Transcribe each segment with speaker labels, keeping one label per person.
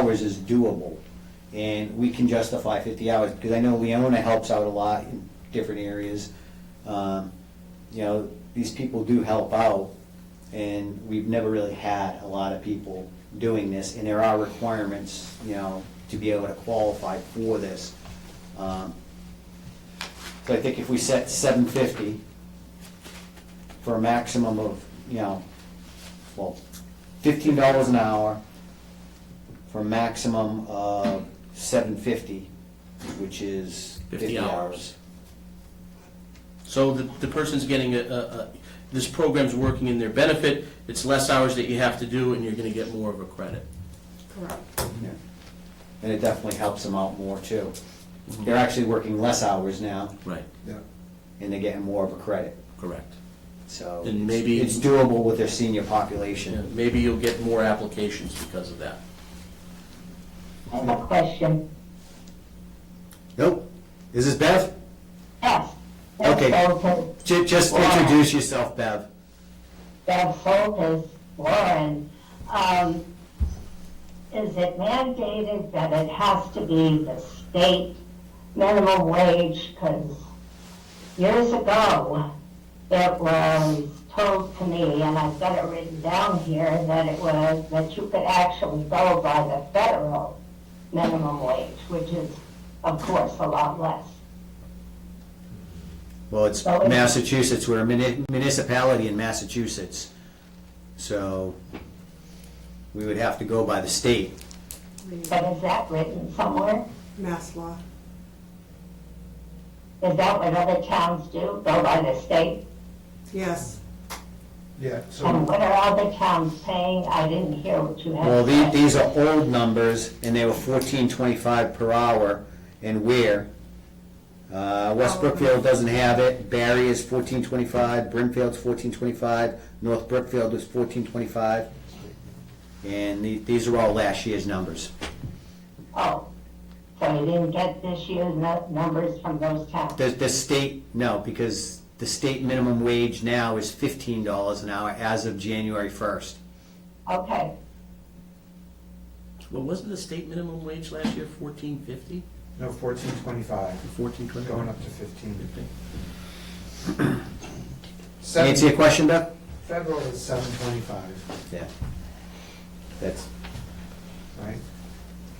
Speaker 1: hours is doable, and we can justify fifty hours, because I know Leona helps out a lot in different areas. Um, You know, these people do help out, and we've never really had a lot of people doing this, and there are requirements, you know, to be able to qualify for this. Um, So I think if we set seven fifty for a maximum of, you know, well, fifteen dollars an hour, for a maximum of seven fifty, which is
Speaker 2: 50
Speaker 1: fifty
Speaker 2: hours.
Speaker 1: hours.
Speaker 2: So the, the person's getting a, a, a, this program's working in their benefit, it's less hours that you have to do, and you're gonna get more of a credit.
Speaker 3: Correct.
Speaker 1: Yeah. And it definitely helps them out more too.
Speaker 2: Mm-hmm.
Speaker 1: They're actually working less hours now,
Speaker 2: Right,
Speaker 4: Yeah,
Speaker 1: and they're getting more of a credit,
Speaker 2: correct.
Speaker 1: so.
Speaker 2: And maybe-
Speaker 1: It's doable with their senior
Speaker 2: Yeah,
Speaker 1: population.
Speaker 2: Maybe you'll get more applications because of that.
Speaker 5: I have a question.
Speaker 1: Nope. Is this Bev?
Speaker 5: Yes.
Speaker 1: Okay.
Speaker 5: Bev Soltis,
Speaker 1: Ju- Just introduce yourself, Bev.
Speaker 5: Bev Soltis, Warren, um, is it mandated that it has to be the state minimum wage? Because years ago, it was told to me, and I've got it written down here, that it was, that you could actually go by the federal minimum wage, which is, of course, a lot less.
Speaker 1: Well, it's
Speaker 5: That was-
Speaker 1: Massachusetts, we're a muni- municipality in Massachusetts, so we would have to go by the state.
Speaker 5: But is that written somewhere?
Speaker 6: Mass law.
Speaker 5: Is that what other towns do, go by the state?
Speaker 6: Yes.
Speaker 4: yeah,
Speaker 5: And
Speaker 4: so,
Speaker 5: what are other towns paying? I didn't hear what you
Speaker 1: Mm-hmm. Well, the-
Speaker 5: had said.
Speaker 1: these are old numbers, and they were fourteen twenty-five per hour, and where? Uh, West Brookfield doesn't have it, Barry is fourteen twenty-five, Brimfield's fourteen twenty-five, North Brookfield is fourteen twenty-five. And the- these are all last year's numbers.
Speaker 5: Oh, so you didn't get this year's nu- numbers from those towns?
Speaker 1: The, the state, no, because the state minimum wage now is fifteen dollars an hour as of January first.
Speaker 5: Okay,
Speaker 2: Well, wasn't the state minimum wage last year fourteen fifty?
Speaker 4: no, fourteen twenty-five,
Speaker 2: Fourteen twenty?
Speaker 4: going up to fifteen.
Speaker 1: Answer your
Speaker 4: Seven,
Speaker 1: question, Beth?
Speaker 4: federal is seven twenty-five,
Speaker 1: Yeah. That's,
Speaker 4: right?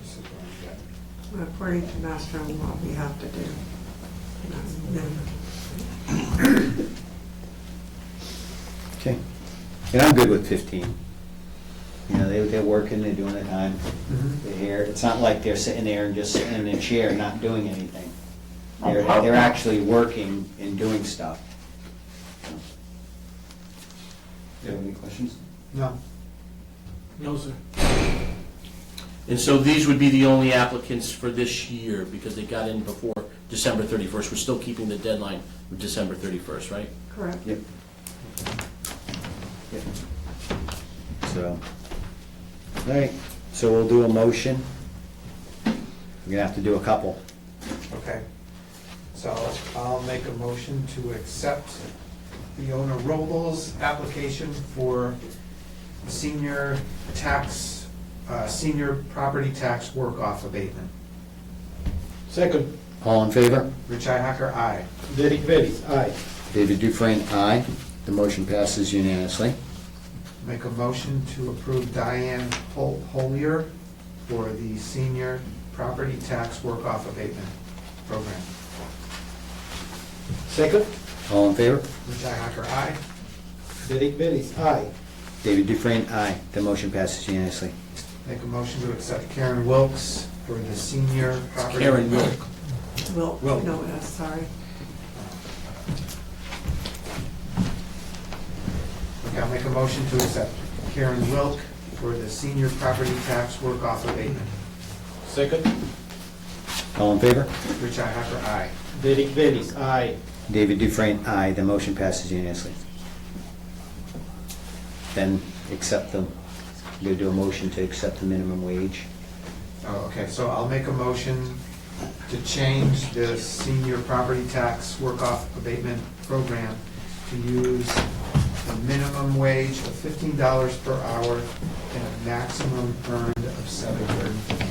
Speaker 4: This is what I get.
Speaker 6: According to mass general law, we have to do. That's minimum.
Speaker 1: okay. And I'm good with fifteen. You know, they, they're working, they're doing their time, they're here. It's not like they're sitting there and just sitting in a chair, not doing anything. They're, they're actually working and doing stuff. Do you have any questions?
Speaker 4: No,
Speaker 2: No, sir. And so these would be the only applicants for this year, because they got in before December thirty-first, we're still keeping the deadline of December thirty-first, right?
Speaker 6: Correct.
Speaker 1: Yep. Yep. So, all right, so we'll do a motion. We're gonna have to do a couple.
Speaker 4: okay. So I'll make a motion to accept Leona Robles' application for senior tax, uh, senior property tax work-off abatement.
Speaker 7: Second,
Speaker 1: All in favor?
Speaker 4: Richi Hacker, aye.
Speaker 7: Derek Bellis, aye.
Speaker 1: David Dufresne, aye. The motion passes unanimously.
Speaker 4: Make a motion to approve Diane Hol- Holier for the senior property tax work-off abatement program.
Speaker 7: Second,
Speaker 1: All in favor?
Speaker 4: Richi Hacker, aye.
Speaker 7: Derek Bellis, aye.
Speaker 1: David Dufresne, aye. The motion passes unanimously.
Speaker 4: Make a motion to accept Karen Wilkes for the senior property.
Speaker 2: Karen Wilk.
Speaker 6: Well,
Speaker 2: Well-
Speaker 6: no, uh, sorry.
Speaker 4: Okay, I'll make a motion to accept Karen Wilk for the senior property tax work-off abatement.
Speaker 7: Second,
Speaker 1: All in favor?
Speaker 4: Richi Hacker, aye.
Speaker 7: Derek Bellis, aye.
Speaker 1: David Dufresne, aye. The motion passes unanimously. Then accept them. We'll do a motion to accept the minimum wage.
Speaker 4: Oh, okay, so I'll make a motion to change the senior property tax work-off abatement program to use the minimum wage of fifteen dollars per hour and a maximum earned of seven hundred and fifty